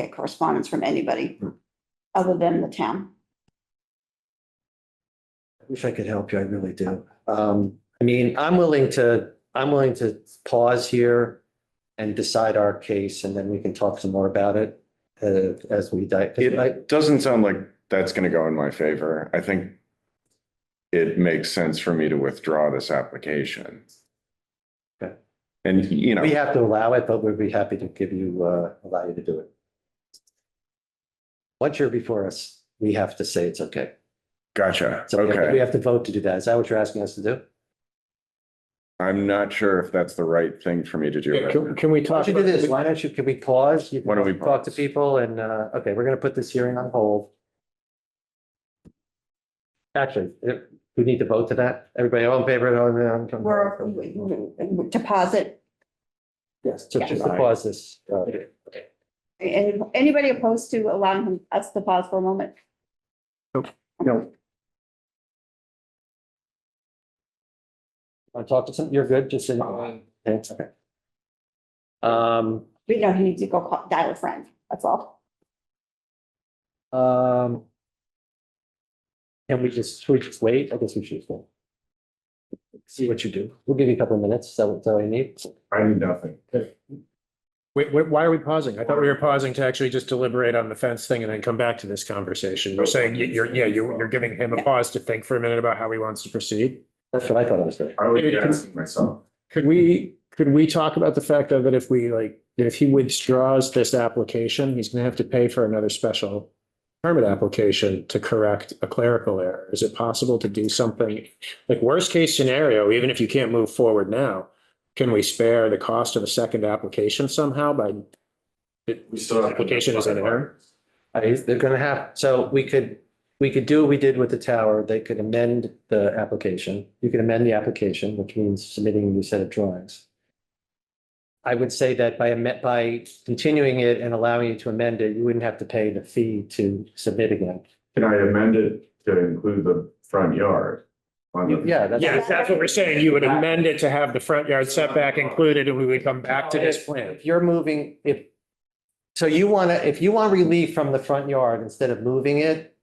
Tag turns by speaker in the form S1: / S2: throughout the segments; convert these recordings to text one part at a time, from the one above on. S1: get correspondence from anybody other than the town.
S2: Wish I could help you, I really do. Um, I mean, I'm willing to, I'm willing to pause here and decide our case, and then we can talk some more about it uh, as we die. 'cause I-
S3: It doesn't sound like that's gonna go in my favor. I think it makes sense for me to withdraw this application.
S2: Okay.
S3: And, you
S2: We
S3: know,
S2: have to allow it, but we'd be happy to give you, uh, allow you to do it. Once you're before us, we have to say it's okay.
S3: gotcha,
S2: It's okay. We
S3: okay.
S2: have to vote to do that. Is that what you're asking us to do?
S3: I'm not sure if that's the right thing for me to do. right now.
S4: Can, can we
S2: Why
S4: talk?
S2: don't you do this? Why don't you, can we pause? You
S3: Why don't we
S2: Talk to
S3: pause?
S2: people and, uh, okay, we're gonna put this hearing on hold. Actually, eh, we need to vote to that. Everybody all in favor? of- um,
S1: We're, deposit,
S2: Yes, to just to pause this. uh,
S1: and anybody opposed to allowing him- us to pause for a moment?
S4: No,
S2: wanna Talk to some, you're good, just in. Thanks, okay. Um,
S1: We know he needs to go call, dial a friend, that's all.
S2: um. Can we just, should we just wait? I guess we should. just wait. See what you do. We'll give you a couple of minutes. Is that what- is that what you need?
S3: I need nothing.
S4: wait, wait, why are we pausing? I thought we were pausing to actually just deliberate on the fence thing and then come back to this conversation. You're saying you- you're, yeah, you're, you're giving him a pause to think for a minute about how he wants to proceed.
S2: That's what I thought I was doing.
S3: I
S4: would be asking
S3: myself.
S4: Could we, could we talk about the fact though that if we like, that if he withdraws this application, he's gonna have to pay for another special permit application to correct a clerical error? Is it possible to do something, like worst case scenario, even if you can't move forward now, can we spare the cost of a second application somehow by?
S3: We still have-
S4: Application is an error?
S2: Uh, is- They're gonna have, so we could, we could do what we did with the tower. They could amend the application. You can amend the application, which means submitting a new set of drawings. I would say that by, amen- by continuing it and allowing you to amend it, you wouldn't have to pay the fee to submit again.
S3: Can I amend it to include the front yard? on the-
S2: Yeah, that's.
S4: Yeah, that's what we're saying. You would amend it to have the front yard setback included and we would come back to this plan.
S2: If you're moving, if, so you want to, if you want relief from the front yard instead of moving it,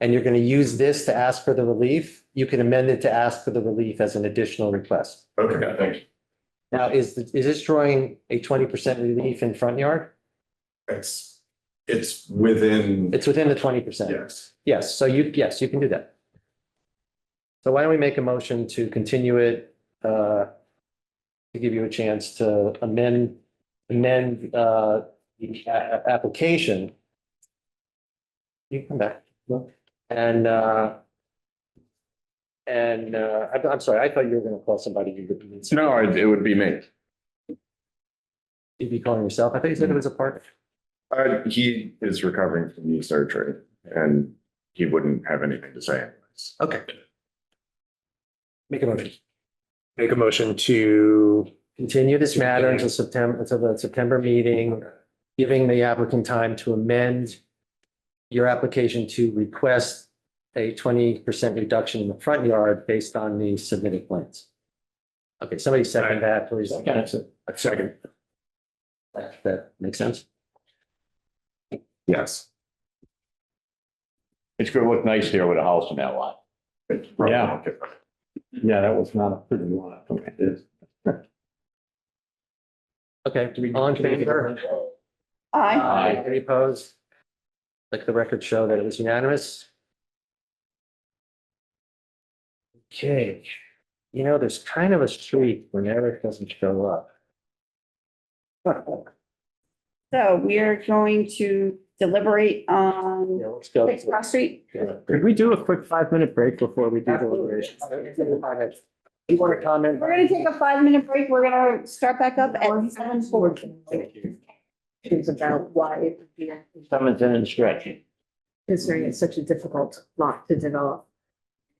S2: and you're going to use this to ask for the relief, you can amend it to ask for the relief as an additional request.
S3: Okay, thank you.
S2: Now, is, the- is this drawing a twenty percent relief in front yard?
S3: It's, it's within,
S2: It's within the twenty percent.
S3: yes.
S2: Yes, so you, yes, you can do that. So why don't we make a motion to continue it, uh, to give you a chance to amend, amend, uh, the a- a- application. You can come back, look, and, uh, and, uh, I'm, I'm sorry, I thought you were gonna call somebody. you would-
S3: No, it it would be me.
S2: You'd be calling yourself. I thought you said it was a partner.
S3: Uh, he is recovering from knee surgery and he wouldn't have anything to say. anyways.
S2: Okay. Make a motion.
S4: Make a motion to,
S2: continue this matter until September, until the September meeting, giving the applicant time to amend your application to request a twenty percent reduction in the front yard based on the submitted plans. Okay, somebody second that, please.
S4: second,
S2: That that makes sense?
S3: Yes.
S5: It's gonna look nice here with a house in that lot. Yeah. Yeah, that was not a pretty lot. It is.
S2: Okay, all in favor?
S1: Aye.
S5: Aye.
S2: Any opposed? Let the record show that it was unanimous. Okay, you know, there's kind of a streak when Eric doesn't show up.
S1: So we are going to deliberate on
S2: Yeah, let's go.
S1: Six Cross Street.
S4: could we do a quick five minute break before we do deliberation?
S2: You want to comment?
S1: We're gonna take a five-minute break, we're gonna start back up at seven fourteen.
S6: It's about why it would be
S5: Someone's in and stretching.
S6: considering it's such a difficult lot to develop.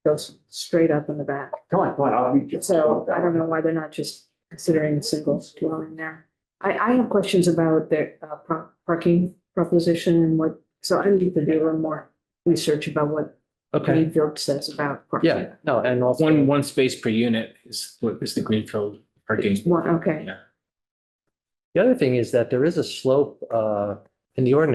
S6: Goes straight up in the back.
S5: Come on, come on, I'll meet you.
S6: So I don't know why they're not just considering single dwelling there. I, I have questions about their uh, par- parking proposition and what, so I need to do a little more research about what
S2: Okay,
S6: Greenfield says about. parking.
S2: yeah, no, and also.
S7: One, one space per unit is what is the Greenfield parking.
S6: One, okay.
S2: The other thing is that there is a slope, uh, in the ordinance